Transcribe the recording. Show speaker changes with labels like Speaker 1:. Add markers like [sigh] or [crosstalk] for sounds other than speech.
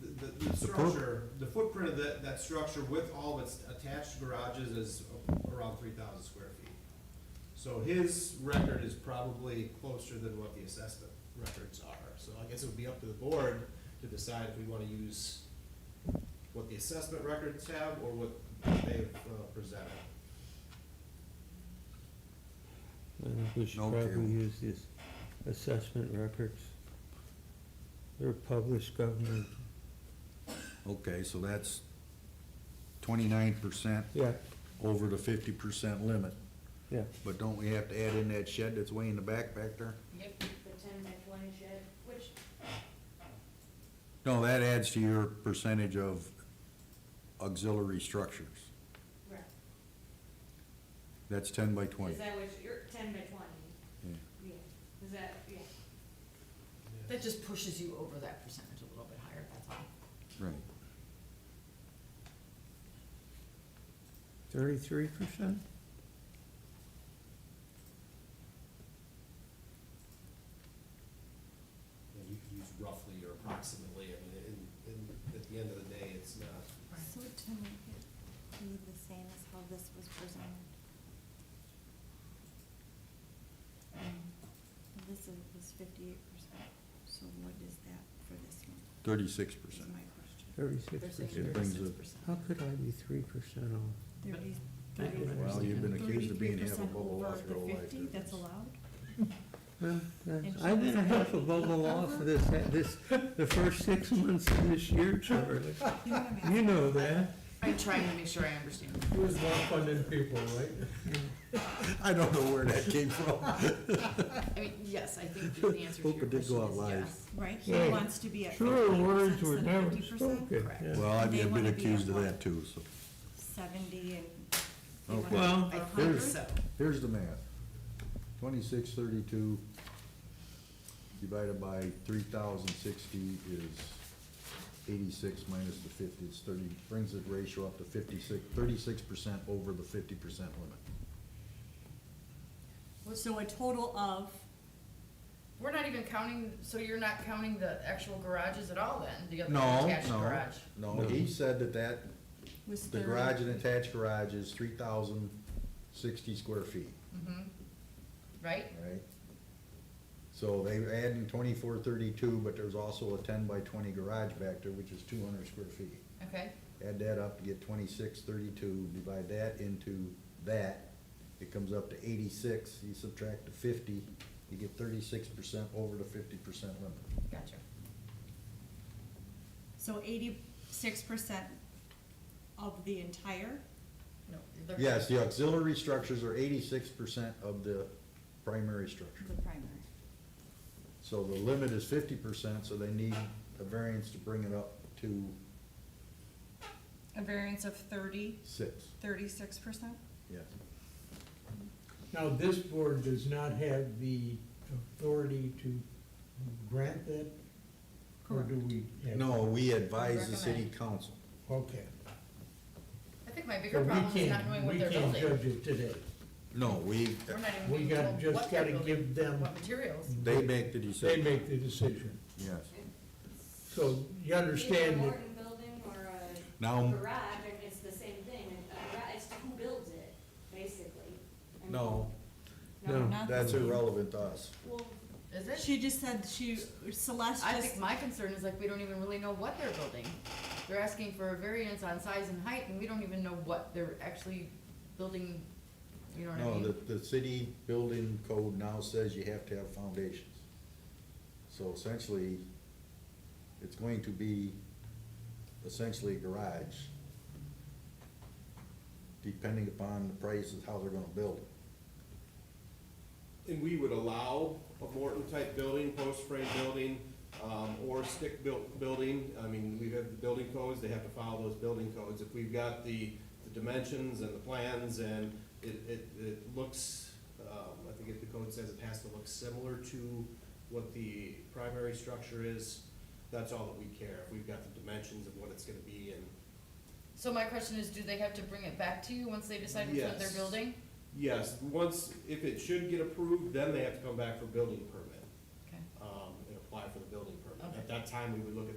Speaker 1: the, the
Speaker 2: foot-
Speaker 1: structure, the footprint of that, that structure with all of its attached garages is around three thousand square feet. So his record is probably closer than what the assessment records are, so I guess it would be up to the board to decide if we wanna use what the assessment records have or what they've uh, presented.
Speaker 3: I think we should
Speaker 2: No
Speaker 3: probably
Speaker 2: cable.
Speaker 3: use these assessment records. They're published government,
Speaker 2: Okay, so that's twenty-nine percent
Speaker 3: yeah,
Speaker 2: over the fifty percent limit.
Speaker 3: yeah.
Speaker 2: But don't we have to add in that shed that's way in the back back there?
Speaker 4: Yep, the ten by twenty shed, which,
Speaker 2: No, that adds to your percentage of auxiliary structures.
Speaker 4: right,
Speaker 2: That's ten by twenty.
Speaker 4: is that what, you're, ten by twenty,
Speaker 2: Yeah.
Speaker 4: yeah, is that, yeah.
Speaker 5: That just pushes you over that percentage a little bit higher, that's all.
Speaker 2: Right.
Speaker 3: Thirty-three percent?
Speaker 1: And you could use roughly or approximately, I mean, in, in, at the end of the day, it's not,
Speaker 6: So to make it be the same as how this was presented. Um, This is, was fifty-eight percent, so what is that for this one,
Speaker 2: Thirty-six
Speaker 6: is
Speaker 2: percent.
Speaker 6: my question.
Speaker 5: They're
Speaker 3: Thirty-six
Speaker 5: saying
Speaker 3: percent.
Speaker 2: It brings
Speaker 5: thirty-six
Speaker 2: it-
Speaker 5: percent.
Speaker 3: How could I be three percent off?
Speaker 6: Thirty,
Speaker 5: I don't
Speaker 3: Well,
Speaker 2: Well,
Speaker 5: understand.
Speaker 2: you've been accused of being
Speaker 6: thirty-three
Speaker 2: half a
Speaker 6: percent
Speaker 2: bubble
Speaker 6: over
Speaker 2: off your
Speaker 6: the
Speaker 2: whole life.
Speaker 6: fifty, that's allowed?
Speaker 3: Well, that's-
Speaker 6: And
Speaker 3: I've
Speaker 6: she
Speaker 3: been a
Speaker 6: was
Speaker 3: half a bubble off of this, this, the first six months of this year,
Speaker 6: [laughs]
Speaker 3: Charlie.
Speaker 6: You know what I'm
Speaker 3: You
Speaker 6: asking?
Speaker 3: know that.
Speaker 5: I'm trying to make sure I understand.
Speaker 7: Who's more funding people, right?
Speaker 2: [laughs] I don't know where that came from.
Speaker 5: I mean, yes, I think the answer to
Speaker 2: Hope
Speaker 5: your
Speaker 2: it did
Speaker 5: question
Speaker 2: go out
Speaker 5: is
Speaker 2: live.
Speaker 5: yes.
Speaker 6: Right, he
Speaker 3: Right.
Speaker 6: wants to be at
Speaker 3: Sure,
Speaker 6: fifty
Speaker 3: words
Speaker 6: percent
Speaker 3: were
Speaker 6: instead of
Speaker 3: never
Speaker 6: fifty percent,
Speaker 3: spoken.
Speaker 5: Correct.
Speaker 3: yeah.
Speaker 2: Well, I've
Speaker 6: They
Speaker 2: been
Speaker 6: wanna be
Speaker 2: accused
Speaker 6: at
Speaker 2: of
Speaker 6: one.
Speaker 2: that too, so.
Speaker 6: seventy and they
Speaker 2: Okay.
Speaker 6: want
Speaker 3: Well,
Speaker 5: I think
Speaker 2: Here's-
Speaker 5: so.
Speaker 2: Here's the math. Twenty-six thirty-two divided by three thousand sixty is eighty-six minus the fifty, it's thirty, brings the ratio up to fifty-six, thirty-six percent over the fifty percent limit.
Speaker 6: So a total of,
Speaker 8: We're not even counting, so you're not counting the actual garages at all then, the other
Speaker 2: No,
Speaker 8: attached
Speaker 2: no,
Speaker 8: garage?
Speaker 2: no, he said that that,
Speaker 6: was
Speaker 2: the
Speaker 6: thirty.
Speaker 2: garage and attached garage is three thousand sixty square feet,
Speaker 5: Mm-hmm.
Speaker 8: Mhm. Right?
Speaker 2: right? So they add in twenty-four thirty-two, but there's also a ten by twenty garage back there, which is two hundred square feet.
Speaker 8: Okay,
Speaker 2: add that up to get twenty-six, thirty-two, divide that into that, it comes up to eighty-six, you subtract the fifty, you get thirty-six percent over the fifty percent limit.
Speaker 8: gotcha.
Speaker 6: So eighty-six percent of the entire,
Speaker 8: No. they're-
Speaker 2: Yes, the auxiliary structures are eighty-six percent of the primary structure.
Speaker 6: the primary.
Speaker 2: So the limit is fifty percent, so they need a variance to bring it up to
Speaker 6: A variance of thirty,
Speaker 2: six,
Speaker 6: thirty-six percent?
Speaker 2: yes.
Speaker 7: Now, this board does not have the authority to grant that? Or do we? have-
Speaker 2: No, we advise the city council.
Speaker 7: Okay.
Speaker 8: I think my
Speaker 7: So
Speaker 8: bigger
Speaker 7: we
Speaker 8: problem is not
Speaker 7: can't,
Speaker 8: knowing
Speaker 7: we
Speaker 8: what they're
Speaker 7: can't
Speaker 8: building.
Speaker 7: judge it today.
Speaker 2: No, we,
Speaker 8: We're not even
Speaker 7: We
Speaker 8: being
Speaker 7: gotta-
Speaker 8: told
Speaker 7: just
Speaker 8: what they're
Speaker 7: gotta
Speaker 8: building,
Speaker 7: give them-
Speaker 8: What materials.
Speaker 2: they make the
Speaker 7: They
Speaker 2: decision,
Speaker 7: make the decision.
Speaker 2: yes.
Speaker 7: So you
Speaker 4: Either
Speaker 7: understand
Speaker 4: a
Speaker 7: that, Um,
Speaker 4: Morton building or a
Speaker 2: Now,
Speaker 4: garage, and it's the same thing, and a garage, it's who builds it, basically. I mean,
Speaker 2: no,
Speaker 3: No.
Speaker 6: Not the
Speaker 2: that's
Speaker 6: same.
Speaker 2: irrelevant to us.
Speaker 4: Well,
Speaker 8: Is it?
Speaker 6: She just said she, Celeste
Speaker 8: I
Speaker 6: just,
Speaker 8: think my concern is like, we don't even really know what they're building. They're asking for a variance on size and height, and we don't even know what they're actually building, you know what I
Speaker 2: No,
Speaker 8: mean?
Speaker 2: the, the city building code now says you have to have foundations. So essentially, it's going to be essentially a garage, depending upon the price of how they're gonna build it.
Speaker 1: And we would allow a Morton-type building, post-frame building, um, or stick-built building. I mean, we have the building codes, they have to follow those building codes. If we've got the, the dimensions and the plans and it, it, it looks, um, I think if the code says it has to look similar to what the primary structure is, that's all that we care. If we've got the dimensions of what it's gonna be and,
Speaker 8: So my question is, do they have to bring it back to you once they decide which one they're
Speaker 1: Yes.
Speaker 8: building?
Speaker 1: yes, once, if it should get approved, then they have to come back for building permit.
Speaker 8: Okay.
Speaker 1: um, and apply for the building permit.
Speaker 8: Okay.
Speaker 1: At that time, we would look at